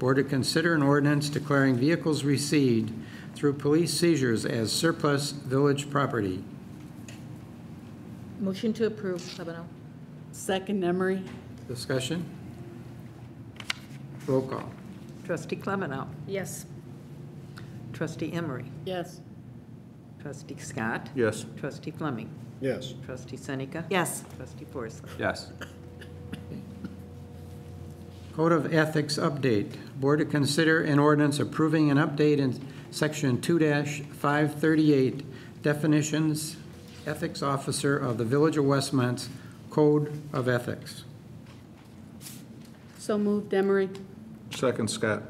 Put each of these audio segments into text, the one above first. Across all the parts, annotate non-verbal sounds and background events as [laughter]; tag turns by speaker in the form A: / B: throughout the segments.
A: or to consider an ordinance declaring vehicles received through police seizures as surplus village property.
B: Motion to approve, seven oh.
C: Second Emery?
A: Discussion? Roll call.
D: Trustee Clevenow.
B: Yes.
D: Trustee Emery.
C: Yes.
D: Trustee Scott.
E: Yes.
D: Trustee Fleming.
E: Yes.
D: Trustee Seneca.
C: Yes.
D: Trustee Forsley.
F: yes,
A: Code of Ethics update. Board to consider an ordinance approving an update in Section 2-538, definitions, ethics officer of the Village of Westmont's Code of Ethics.
C: So moved Emery?
E: Second Scott.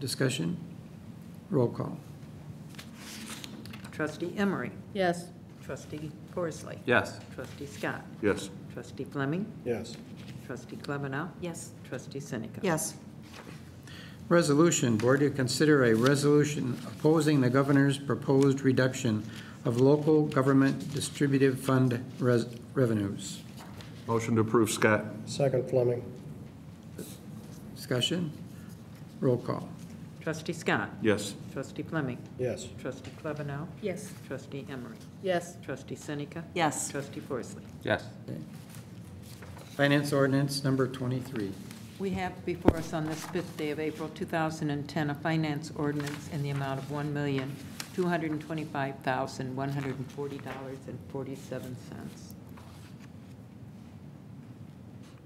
A: Discussion? Roll call.
D: Trustee Emery.
C: Yes.
D: Trustee Forsley.
F: yes,
D: Trustee Scott.
E: Yes.
D: Trustee Fleming.
E: Yes.
D: Trustee Clevenow.
B: Yes.
D: Trustee Seneca.
C: Yes.
A: Resolution, board to consider a resolution opposing the governor's proposed reduction of local government distributive fund res- revenues.
E: Motion to approve Scott.
G: Second Fleming,
A: Discussion? Roll call.
D: Trustee Scott.
E: Yes.
D: Trustee Fleming.
G: yes.
D: Trustee Clevenow.
B: Yes.
D: Trustee Emery.
C: Yes.
D: Trustee Seneca.
C: Yes.
D: Trustee Forsley.
F: yes.
A: Finance ordinance number 23.
D: We have before us on this fifth day of April 2010, a finance ordinance in the amount of $1,225,140.47.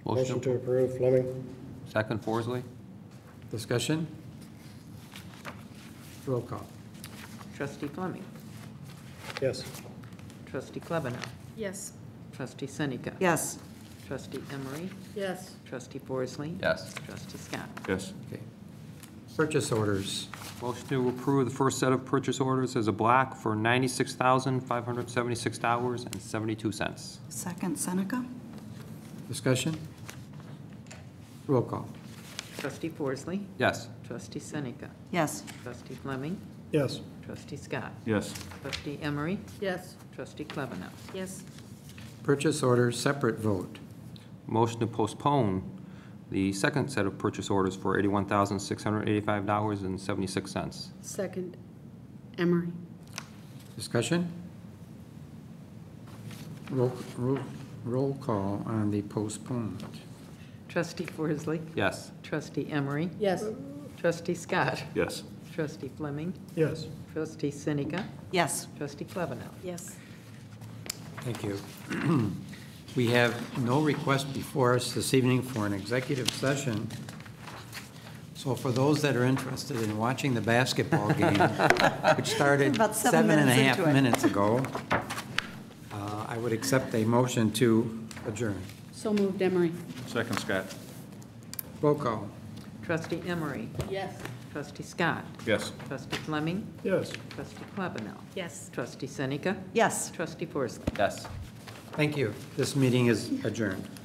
G: Motion to approve Fleming,
F: Second Forsley,
A: Discussion? Roll call.
D: Trustee Fleming.
G: yes.
D: Trustee Klebanow.
B: Yes.
D: Trustee Seneca.
C: Yes.
D: Trustee Emery.
C: Yes.
D: Trustee Forsley.
F: yes.
D: Trustee Scott.
E: Yes.
A: Okay. Purchase orders.
F: Motion to approve the first set of purchase orders as a block for $96,576.72.
C: Second Seneca?
A: Discussion? Roll call.
D: Trustee Forsley.
F: Yes,
D: Trustee Seneca.
C: Yes.
D: Trustee Fleming.
G: Yes.
D: Trustee Scott.
E: Yes.
D: Trustee Emery.
C: Yes.
D: Trustee Klebanow.
B: Yes.
A: Purchase order, separate vote.
F: motion to postpone the second set of purchase orders for $81,685.76.
C: Second Emery?
A: Discussion? Roll, roll, roll call on the postponed.
D: Trustee Forsley.
F: Yes.
D: Trustee Emery.
C: Yes.
D: Trustee Scott.
E: Yes.
D: Trustee Fleming.
G: Yes.
D: Trustee Seneca.
C: Yes.
D: Trustee Klebanow.
B: Yes.
A: Thank you. [clears throat] We have no request before us this evening for an executive session. So for those that are interested in watching the [laughs] basketball game, which started
C: About seven
A: seven and a
C: minutes
A: half
C: into it.
A: minutes ago, uh, I would accept a motion to adjourn.
C: So moved Emery?
E: Second Scott.
A: Roll call.
D: Trustee Emery.
C: Yes.
D: Trustee Scott.
E: Yes.
D: Trustee Fleming.
E: Yes.
D: Trustee Klebanow.
B: Yes.
D: Trustee Seneca.
C: Yes.
D: Trustee Forsley.
F: Yes.
A: Thank you. This meeting is adjourned.